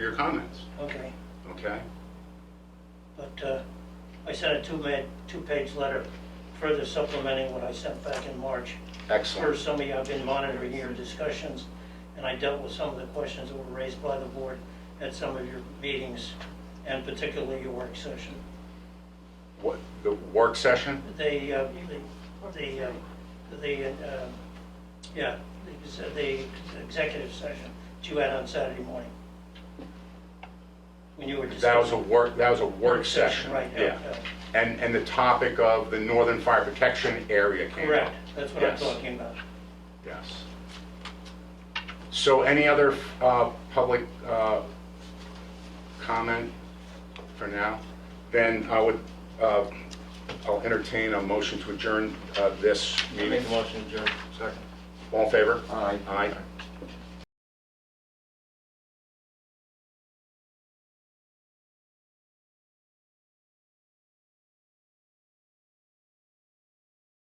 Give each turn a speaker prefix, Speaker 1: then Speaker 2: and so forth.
Speaker 1: your comments,
Speaker 2: okay.
Speaker 1: okay?
Speaker 2: But uh, I sent a two-ma, two-page letter further supplementing what I sent back in March. For
Speaker 1: Excellent.
Speaker 2: some of you, I've been monitoring your discussions, and I dealt with some of the questions that were raised by the board at some of your meetings, and particularly your work session.
Speaker 1: What, the work session?
Speaker 2: They, uh, the, the, uh, the, uh, yeah, the ex- the executive session that you had on Saturday morning. When you were discussing.
Speaker 1: That was a work, that was a work session.
Speaker 2: Right, yeah,
Speaker 1: Yeah.
Speaker 2: yeah.
Speaker 1: And, and the topic of the Northern Fire Protection Area came up.
Speaker 2: Correct, that's what I'm
Speaker 1: Yes.
Speaker 2: talking about.
Speaker 1: Yes. So any other uh, public uh, comment for now? Then I would, uh, I'll entertain a motion to adjourn uh, this
Speaker 3: I
Speaker 1: meeting.
Speaker 3: Make the motion to adjourn.
Speaker 1: All in favor?
Speaker 3: Aye.
Speaker 1: Aye.